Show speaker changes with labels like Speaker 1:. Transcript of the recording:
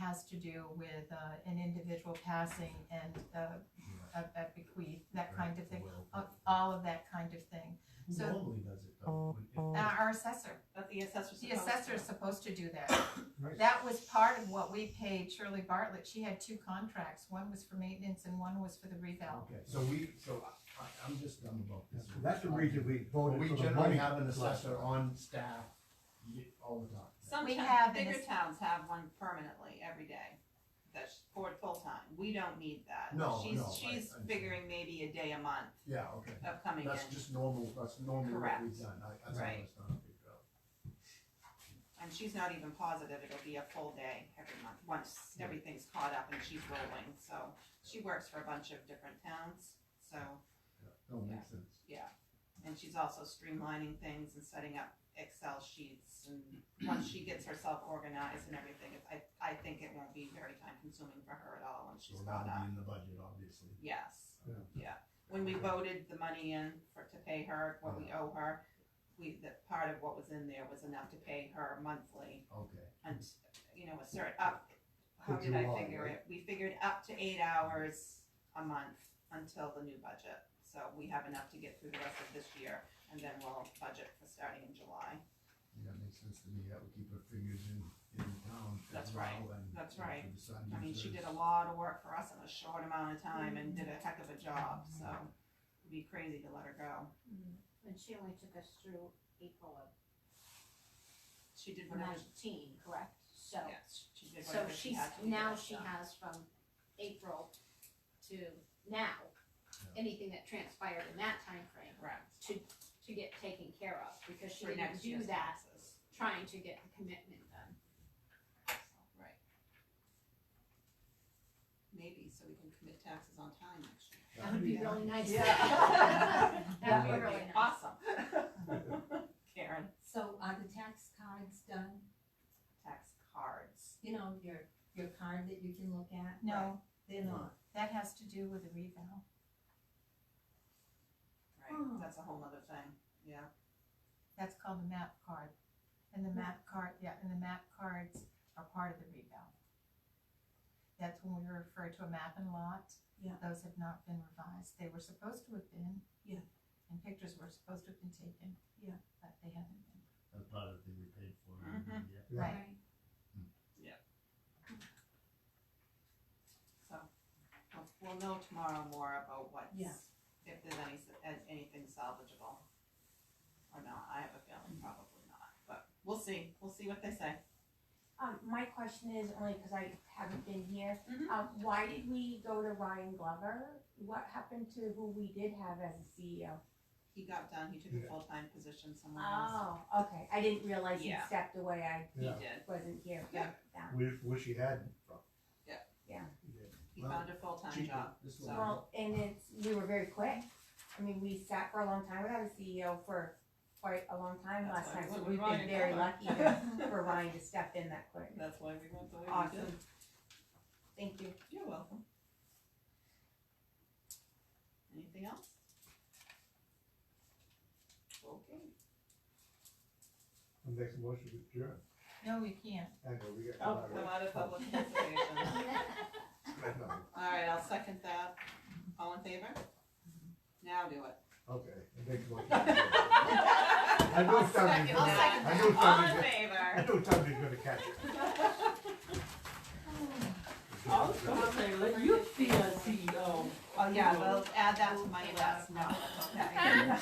Speaker 1: has to do with uh, an individual passing and uh, a a bequeath, that kind of thing,
Speaker 2: Well,
Speaker 1: a- all of that kind of thing.
Speaker 2: Who
Speaker 1: so-
Speaker 2: normally does it though?
Speaker 3: Oh,
Speaker 2: Would
Speaker 1: Uh,
Speaker 2: it-
Speaker 1: Our assessor,
Speaker 4: But the assessor's
Speaker 1: the
Speaker 4: supposed
Speaker 1: assessor
Speaker 4: to.
Speaker 1: is supposed to do that.
Speaker 2: Right.
Speaker 1: That was part of what we paid Shirley Bartlett, she had two contracts, one was for maintenance and one was for the revale.
Speaker 2: Okay, so we, so I- I, I'm just dumb about
Speaker 3: Yeah,
Speaker 2: this.
Speaker 3: so That's the reason we
Speaker 2: But
Speaker 3: voted
Speaker 2: we
Speaker 3: for the
Speaker 2: generally
Speaker 3: money.
Speaker 2: have an
Speaker 3: last
Speaker 2: assessor
Speaker 3: time.
Speaker 2: on staff ye- all the time.
Speaker 4: Some
Speaker 1: We
Speaker 4: town-
Speaker 1: have an
Speaker 4: bigger
Speaker 1: ass-
Speaker 4: towns have one permanently every day, that's for full-time, we don't need that.
Speaker 2: No,
Speaker 4: She's-
Speaker 2: no, I-
Speaker 4: She's
Speaker 2: I understand.
Speaker 4: figuring maybe a day a month
Speaker 2: Yeah, okay,
Speaker 4: of coming in,
Speaker 2: that's just normal, that's normally what
Speaker 4: Correct.
Speaker 2: we've done, I, that's how
Speaker 4: Right.
Speaker 2: it's done. Right.
Speaker 4: and she's not even positive it'll be a full day every month, once
Speaker 2: Yeah.
Speaker 4: everything's caught up and she's rolling, so. She works for a bunch of different towns, so,
Speaker 2: No, it makes sense.
Speaker 4: yeah, and she's also streamlining things and setting up Excel sheets and once she gets herself organized and everything, it's- I, I think it won't be very time consuming for her at all once
Speaker 2: So
Speaker 4: she's
Speaker 2: that'll
Speaker 4: caught up.
Speaker 2: be in the budget, obviously.
Speaker 4: Yes,
Speaker 3: Yeah.
Speaker 4: yeah. When we voted the money in for, to pay her, what we owe her, we, that part of what was in there was enough to pay her monthly
Speaker 2: Okay,
Speaker 4: and, you know, a certain up. How
Speaker 3: For
Speaker 4: did I
Speaker 3: July,
Speaker 4: figure
Speaker 3: right?
Speaker 4: it? We figured up to eight hours a month until the new budget. So we have enough to get through the rest of this year and then we'll budget for starting in July.
Speaker 2: yeah, that makes sense to me, that would keep her fingers in, in the town as
Speaker 4: That's
Speaker 2: well
Speaker 4: right.
Speaker 2: and.
Speaker 4: That's
Speaker 2: and
Speaker 4: right.
Speaker 2: for the sun
Speaker 4: I mean, she
Speaker 2: users.
Speaker 4: did a lot of work for us in a short amount of time and did a heck of a job, so it'd be crazy to let her go.
Speaker 5: And she only took us through April of
Speaker 4: She did whatever
Speaker 5: nineteen, correct? So,
Speaker 4: Yes, she did
Speaker 5: so
Speaker 4: whatever she
Speaker 5: she's,
Speaker 4: had to do.
Speaker 5: now
Speaker 4: with
Speaker 5: she
Speaker 4: that.
Speaker 5: has from April to now, anything that transpired in that timeframe
Speaker 4: Correct.
Speaker 5: to, to get taken care of, because she
Speaker 4: For
Speaker 5: didn't
Speaker 4: next
Speaker 5: do
Speaker 4: year's
Speaker 5: that
Speaker 4: taxes.
Speaker 5: trying to get the commitment done.
Speaker 4: Right. Maybe, so we can commit taxes on time next year.
Speaker 5: That would be really nice.
Speaker 4: Yeah.
Speaker 5: That would be really nice.
Speaker 4: Awesome. Karen,
Speaker 6: So are the tax cards done?
Speaker 4: tax cards.
Speaker 6: You know, your, your card that you can look at?
Speaker 1: No,
Speaker 6: They're not.
Speaker 1: that has to do with the revale.
Speaker 4: Right, that's a whole other thing, yeah.
Speaker 1: That's called the map card. And the map card, yeah, and the map cards are part of the revale. That's when we refer to a map and lot.
Speaker 6: Yeah.
Speaker 1: Those have not been revised. They were supposed to have been.
Speaker 6: Yeah.
Speaker 1: And pictures were supposed to have been taken.
Speaker 6: Yeah.
Speaker 1: But they haven't been.
Speaker 2: That's part of the thing we paid for.
Speaker 4: Mhm.
Speaker 2: yeah.
Speaker 3: Yeah.
Speaker 1: Right.
Speaker 4: So, we'll, we'll know tomorrow more about what's,
Speaker 6: Yeah.
Speaker 4: if there's any, s- an- anything salvageable. Or not, I have a feeling probably not, but we'll see, we'll see what they say.
Speaker 7: Um, my question is only because I haven't been here.
Speaker 4: Mhm.
Speaker 7: Um, why did we go to Ryan Glover? What happened to who we did have as a E CEO?
Speaker 4: He got done, he took a full-time position somewhere else.
Speaker 7: Oh, okay. I didn't realize he
Speaker 4: Yeah.
Speaker 7: stepped away. I
Speaker 4: He
Speaker 3: Yeah.
Speaker 4: did,
Speaker 7: wasn't here. for
Speaker 4: Yeah.
Speaker 7: that.
Speaker 3: Wish, wish he had.
Speaker 4: he
Speaker 2: Well,
Speaker 4: found a full-time
Speaker 2: Cheaper,
Speaker 4: job.
Speaker 2: this
Speaker 4: so-
Speaker 2: one.
Speaker 7: Well, and it's, we were very quick. I mean, we sat for a long time without a CEO for quite a long time
Speaker 4: That's
Speaker 7: last
Speaker 4: why
Speaker 7: time,
Speaker 4: we
Speaker 7: so
Speaker 4: went
Speaker 7: we've
Speaker 4: with Ryan
Speaker 7: been very
Speaker 4: Glover.
Speaker 7: lucky to- for Ryan to step in that quick.
Speaker 4: That's why we went the way we did.
Speaker 7: Awesome. Thank you.
Speaker 4: You're welcome. Anything else? Okay.
Speaker 3: I'll Make a motion to adjourn.
Speaker 1: No, we can't.
Speaker 3: Hang on, we got.
Speaker 4: Oh, I'm out of public participation. Alright, I'll second that. All in favor? Now do it.
Speaker 3: Okay, I make a motion. to adjourn. I know
Speaker 4: I'll
Speaker 3: Tommy's gonna,
Speaker 4: second that.
Speaker 3: I know
Speaker 4: All
Speaker 3: Tommy's,
Speaker 4: in
Speaker 3: gonna- I
Speaker 4: favor?
Speaker 3: know Tommy's gonna catch it.
Speaker 8: I was gonna say, let you be a E CEO.
Speaker 4: Oh, yeah, we'll add that to my list. No, okay.